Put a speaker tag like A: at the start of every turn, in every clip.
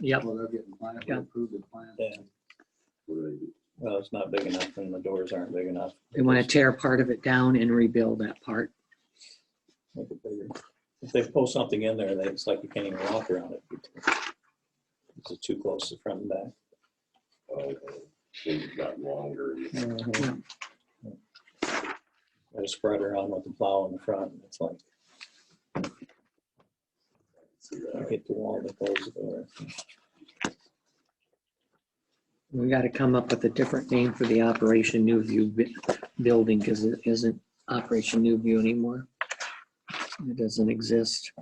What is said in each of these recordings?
A: Yep.
B: Well, they're getting plan,
A: Yeah.
B: approved the plan.
C: Yeah. Well, it's not big enough and the doors aren't big enough.
A: They want to tear part of it down and rebuild that part.
C: Make it bigger. If they pull something in there, then it's like you can't even walk around it. It's too close to front and back.
D: Okay. Things got longer.
A: Mm-hmm.
C: Got a spreader on with the plow in the front. and It's like,
D: See
C: you
D: that?
C: hit the wall that closes the door.
A: We got to come up with a different name for the Operation New View bu- building because it isn't Operation New View anymore. It doesn't exist.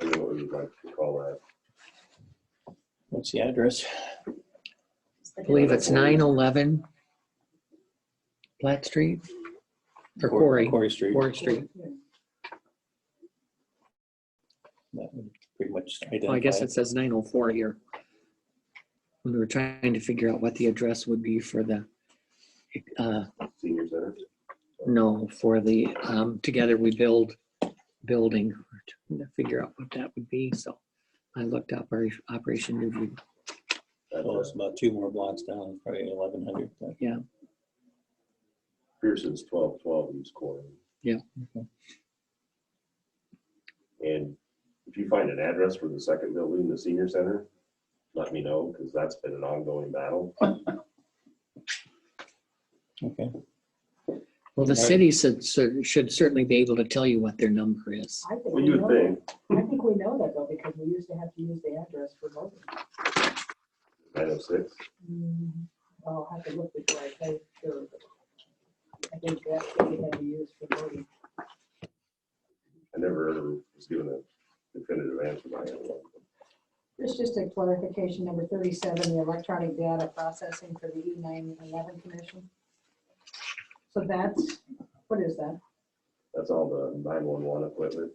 D: I know what you'd like to call that.
C: What's the address?
A: I believe it's 911 Platt Street or Quarry,
C: Quarry Street.
A: Quarry Street.
C: That would Pretty much.
A: Well, I guess
C: identify
A: it says 904 here. When we were trying to figure out what the address would be for the, uh,
D: Senior center.
A: no, for the um, Together We Build building. We're trying to Figure out what that would be. So I looked up our Operation New View.
C: it.
D: That's
C: Oh,
D: uh,
C: it's about two more blocks down, probably eleven hundred.
D: Pearson's twelve twelve East Corner.
A: Yeah.
C: Okay.
D: And if you find an address for the second building, the senior center, let me know, because that's been an ongoing battle.
C: Okay.
A: Well, the city should, should certainly be able to tell you what their number is.
E: I think
D: Well,
E: we
D: you
E: know
D: would think,
E: that. I think we know that though, because we used to have to use the address for voting.
D: nine oh six,
E: Mm, I'll have to look before I say sure. I think that's what we had to use for voting.
D: I never ever was given a definitive answer by anyone.
E: There's just a clarification, number thirty-seven, the electronic data processing for the E nine eleven commission. So that's, what is that?
D: That's all the nine one one equipment,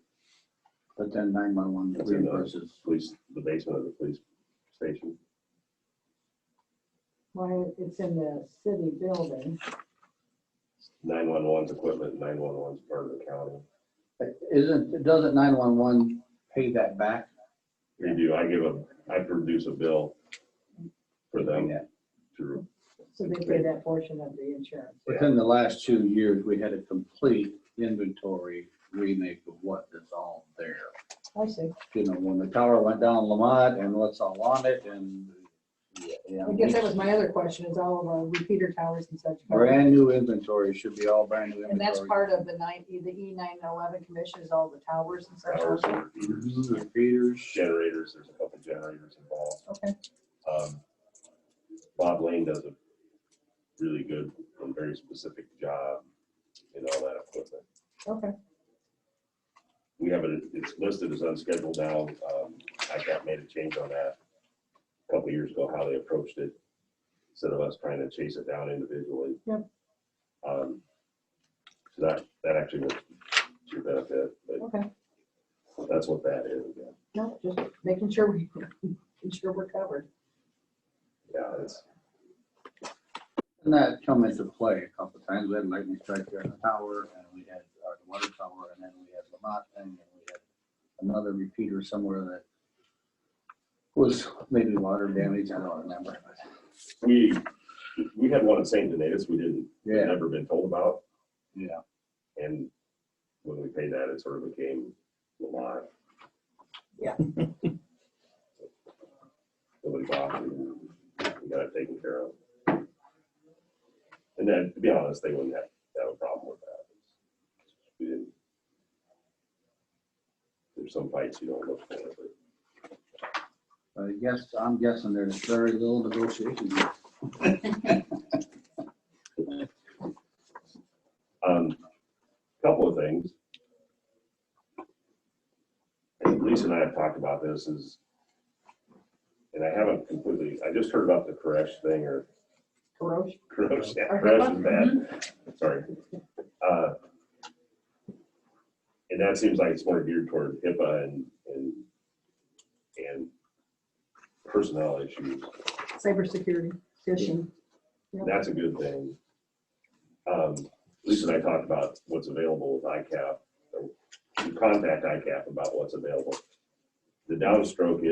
B: But then nine-one-one
D: That's enough.
B: reimburses.
D: police, the basement of the police station.
E: Why, it's in the city building.
D: Nine one one's equipment, nine one one's part of the county.
B: But Isn't, doesn't nine-one-one pay that back?
D: We do, I give a, I produce a bill for them
B: Yeah.
D: to,
E: So they pay that portion of the insurance.
B: Within the last two years, we had a complete inventory remake of what is all there.
E: I see.
B: You know, when the tower went down Lamont and what's all on it and. yeah, yeah,
E: I guess that was my other question, is all of our repeater towers and such. covered?
B: Brand new inventory, should be all brand new
E: And that's
B: inventory.
E: part of the nine, the E nine eleven commission is all the towers and such.
D: towers,
E: also?
B: Mhm, Repeaters.
D: generators, there's a couple generators involved.
E: Okay,
D: Um, Bob Lane does a really good and very specific job in all that equipment.
E: okay.
D: We have it, it's listed as unscheduled now. Um, I got made a change on that a couple years ago, how they approached it, instead of us trying to chase it down individually.
E: Yep.
D: Um, so that, that actually was to your benefit, but
E: Okay,
D: that's what that is. yeah.
E: no, just making sure we, making sure we're covered.
D: Yeah, it's,
B: And that come into play a couple times. We had lightning strike there in the tower and we had our water tower and then we had Lamont thing and we had another repeater somewhere that was maybe water damage. I don't remember.
D: we, we had one in St. Denis we didn't, we
B: Yeah,
D: never been told about.
B: yeah.
D: And when we paid that, it sort of became Lamont.
E: Yeah.
D: Nobody bothered. We got it taken care of. And then, to be honest, they wouldn't have, have a problem with that. We didn't. There's some fights you don't look for, but
B: But I guess, I'm guessing there's very little negotiation. here.
D: Um, couple of things. And Lisa and I have talked about this is, and I haven't completely, I just heard about the Koresh thing or
E: Corrosion,
D: Koresh, yeah,
E: Or
D: Koresh is bad, sorry. Uh, And that seems like it's more geared toward HIPAA and, and, and personnel issues.
E: cybersecurity, phishing.
D: That's a good thing. Um, Lisa and I talked about what's available with ICAP. or we Contact ICAP about what's available. The downstroke is.